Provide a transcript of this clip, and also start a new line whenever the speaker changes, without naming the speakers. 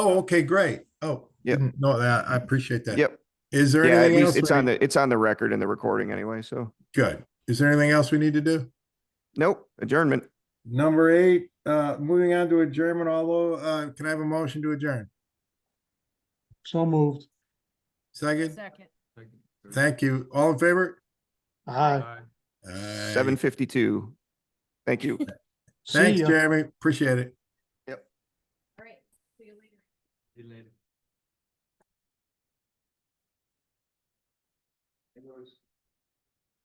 Oh, okay, great. Oh,
Yep.
didn't know that. I appreciate that.
Yep.
Is there
Yeah, at
anything
least
else?
it's
we-
on the, it's on the record and the recording anyway, so.
Good. Is there anything else we need to do?
Nope, adjournment.
Number eight, uh, moving on to adjournment, although, uh, can I have a motion to adjourn?
So moved.
Second,
Second.
thank you. All in favor?
Aye.
Aye.
Seven fifty-two. Thank you.
See
Thanks,
ya.
Jeremy. Appreciate it.
All right. See you later.
See you later.